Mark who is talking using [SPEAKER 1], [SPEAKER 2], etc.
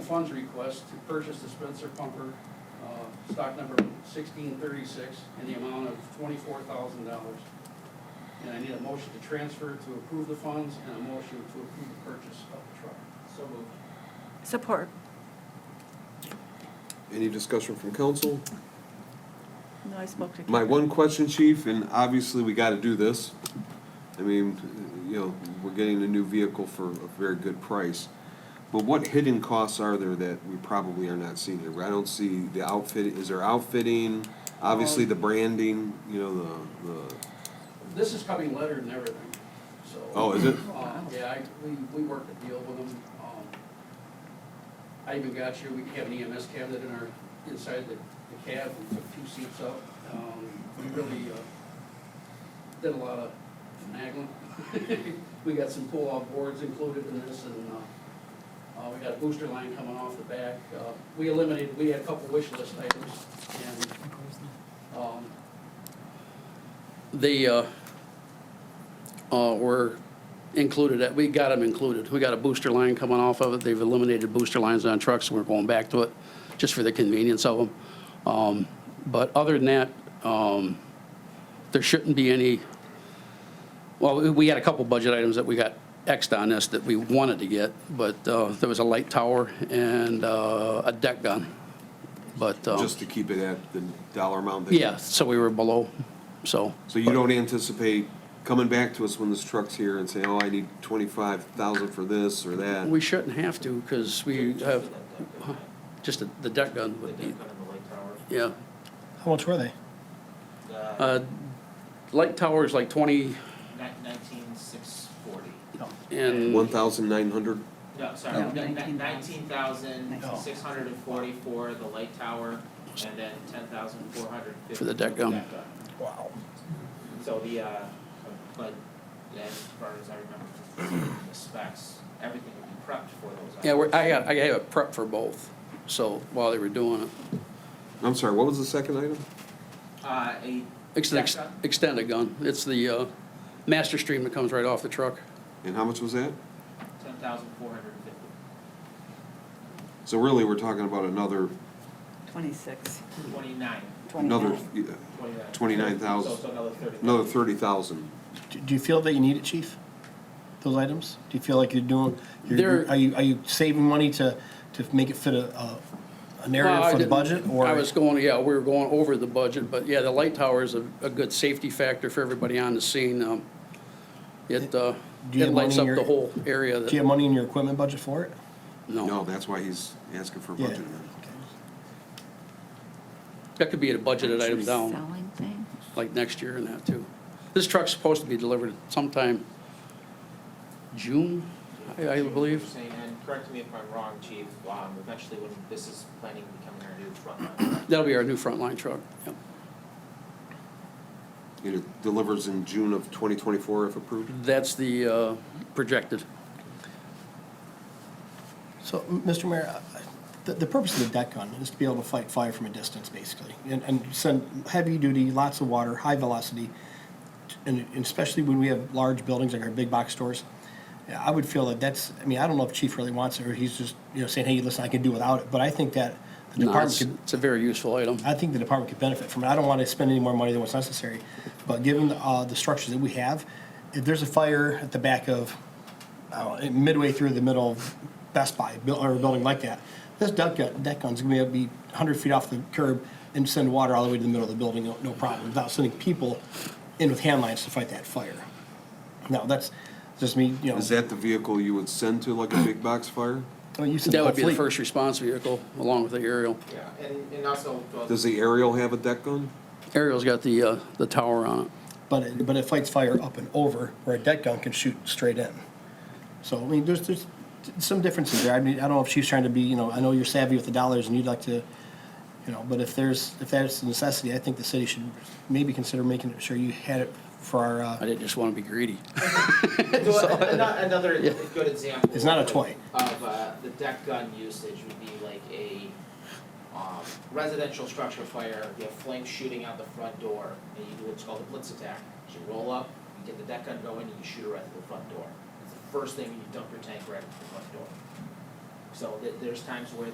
[SPEAKER 1] funds request to purchase the Spencer pumper, uh, stock number sixteen thirty-six, in the amount of twenty-four thousand dollars. And I need a motion to transfer to approve the funds and a motion to approve the purchase of the truck.
[SPEAKER 2] So moved.
[SPEAKER 3] Support.
[SPEAKER 4] Any discussion from council?
[SPEAKER 3] No, I spoke to.
[SPEAKER 4] My
[SPEAKER 3] Karen.
[SPEAKER 4] one question, chief, and obviously we gotta do this. I mean, you know, we're getting a new vehicle for a very good price. But what hidden costs are there that we probably are not seeing here? I don't see the outfit, is there outfitting?
[SPEAKER 1] Um,
[SPEAKER 4] Obviously the branding, you know, the, the,
[SPEAKER 1] This is coming letter and everything, so.
[SPEAKER 4] Oh, is it?
[SPEAKER 1] Um, Yeah, I, we, we worked a deal with them. Um, I even got here, we have an EMS cabinet in our, inside the, the cab, we took two seats up. Um, We really, uh, did a lot of nagging. We got some pull-off boards included in this and, uh, uh, we got a booster line coming off the back. Uh, We eliminated, we had a couple wish list items and, um, they, uh, uh, were included, at- we got them included. We got a booster line coming off of it. They've eliminated booster lines on trucks, and we're going back to it, just for the convenience of them. Um, But other than that, um, there shouldn't be any, well, we- we had a couple budget items that we got Xed on this that we wanted to get, but uh, there was a light tower and uh, a deck gun. But, um,
[SPEAKER 4] just to keep it at the dollar amount? that-
[SPEAKER 1] yeah, so we were below, so.
[SPEAKER 4] So you don't anticipate coming back to us when this truck's here and saying, oh, I need twenty-five thousand for this or that?
[SPEAKER 1] We shouldn't have to, because we
[SPEAKER 2] Just
[SPEAKER 1] have,
[SPEAKER 2] for that deck gun.
[SPEAKER 1] just the- the deck gun
[SPEAKER 2] The
[SPEAKER 1] would be,
[SPEAKER 2] deck gun and the light tower.
[SPEAKER 1] yeah.
[SPEAKER 5] How much were they?
[SPEAKER 2] The
[SPEAKER 1] Uh, Light tower is like 20
[SPEAKER 2] ni- nineteen six forty.
[SPEAKER 1] and.
[SPEAKER 4] One thousand nine hundred?
[SPEAKER 2] No, sorry,
[SPEAKER 3] No,
[SPEAKER 2] nineteen thousand six hundred and forty for the light tower and then ten thousand four hundred fifty.
[SPEAKER 1] For the deck um, gun.
[SPEAKER 5] Wow.
[SPEAKER 2] So the, uh, but yeah, as far as I remember, the specs, everything would be prepped for those.
[SPEAKER 1] Yeah, we're,
[SPEAKER 2] items.
[SPEAKER 1] I got, I have it prepped for both, so while they were doing it.
[SPEAKER 4] I'm sorry, what was the second item?
[SPEAKER 2] Uh, a
[SPEAKER 1] Ex-
[SPEAKER 2] deck
[SPEAKER 1] ex-
[SPEAKER 2] gun,
[SPEAKER 1] Extended gun, it's the uh, master stream that comes right off the truck.
[SPEAKER 4] And how much was that?
[SPEAKER 2] ten thousand four hundred and fifty.
[SPEAKER 4] So really, we're talking about another,
[SPEAKER 3] Twenty-six.
[SPEAKER 2] Twenty-nine,
[SPEAKER 4] another uh,
[SPEAKER 2] twenty-nine.
[SPEAKER 4] 29,000.
[SPEAKER 2] So, so another thirty.
[SPEAKER 4] another thirty thousand.
[SPEAKER 5] Do do you feel that you need it, chief? Those items? Do you feel like you're doing,
[SPEAKER 1] They're-
[SPEAKER 5] you're, are you, are you saving money to, to make it fit a, a- a
[SPEAKER 1] Well, I
[SPEAKER 5] narrative for the
[SPEAKER 1] didn't-
[SPEAKER 5] budget? or-
[SPEAKER 1] I was going, yeah, we were going over the budget, but yeah, the light tower is a, a good safety factor for everybody on the scene. Um, It, uh,
[SPEAKER 5] Do you
[SPEAKER 1] it
[SPEAKER 5] have
[SPEAKER 1] lights up
[SPEAKER 5] money
[SPEAKER 1] the
[SPEAKER 5] in your-
[SPEAKER 1] whole area
[SPEAKER 5] Do you
[SPEAKER 1] that,
[SPEAKER 5] have money in your equipment budget for it?
[SPEAKER 4] No, that's why he's asking for a
[SPEAKER 5] Yeah.
[SPEAKER 4] budget amendment.
[SPEAKER 1] That could be a budgeted item down,
[SPEAKER 3] Selling thing?
[SPEAKER 1] like next year and that too. This truck's supposed to be delivered sometime June, I, I believe.
[SPEAKER 2] And correct me if I'm wrong, chief, um, eventually when this is planning to become our new frontline.
[SPEAKER 1] That'll be our new frontline truck. Yep.
[SPEAKER 4] And It delivers in June of twenty twenty-four if approved.
[SPEAKER 1] That's the, uh, projected.
[SPEAKER 5] So, m- Mr. Mayor, I- I- the, the purpose of the deck gun is to be able to fight fire from a distance, basically, and, and send heavy duty, lots of water, high velocity, and and especially when we have large buildings like our big box stores. Yeah, I would feel that that's, I mean, I don't know if Chief really wants it, or he's just, you know, saying, hey, listen, I can do without it, but I think that the
[SPEAKER 1] No,
[SPEAKER 5] department
[SPEAKER 1] it's,
[SPEAKER 5] could,
[SPEAKER 1] it's a very useful item.
[SPEAKER 5] I think the department could benefit from it. I don't want to spend any more money than what's necessary, but given uh, the structures that we have, if there's a fire at the back of, I don't know, midway through the middle of Best Buy bu- or a building like that, this duck gun, deck gun's gonna be 100 feet off the curb and send water all the way to the middle of the building, no- no problem, without sending people in with hand lines to fight that fire. Now, that's just me, you know.
[SPEAKER 4] Is that the vehicle you would send to like a big box fire?
[SPEAKER 5] I mean, you said
[SPEAKER 1] That would be the
[SPEAKER 5] hopefully-
[SPEAKER 1] first response vehicle, along with the aerial.
[SPEAKER 2] Yeah, and, and also, well,
[SPEAKER 4] Does the aerial have a deck gun?
[SPEAKER 1] Aerial's got the, uh, the tower on it.
[SPEAKER 5] but it, but it fights fire up and over, where a deck gun can shoot straight in. So, I mean, there's, there's some differences there. I mean, I don't know if she's trying to be, you know, I know you're savvy with the dollars and you'd like to, you know, but if there's, if that's a necessity, I think the city should maybe consider making sure you had it for our,
[SPEAKER 1] I
[SPEAKER 5] uh,
[SPEAKER 1] didn't just want to be greedy.
[SPEAKER 2] So ano- another good example.
[SPEAKER 5] It's not a
[SPEAKER 2] of-
[SPEAKER 5] toy.
[SPEAKER 2] Of, uh, the deck gun usage would be like a, um, residential structure fire, you have flames shooting out the front door, and you do what's called a blitz attack. So you roll up, you get the deck gun going, and you shoot it right through the front door. It's the first thing, and you dump your tank right at the front door. So there, there's times where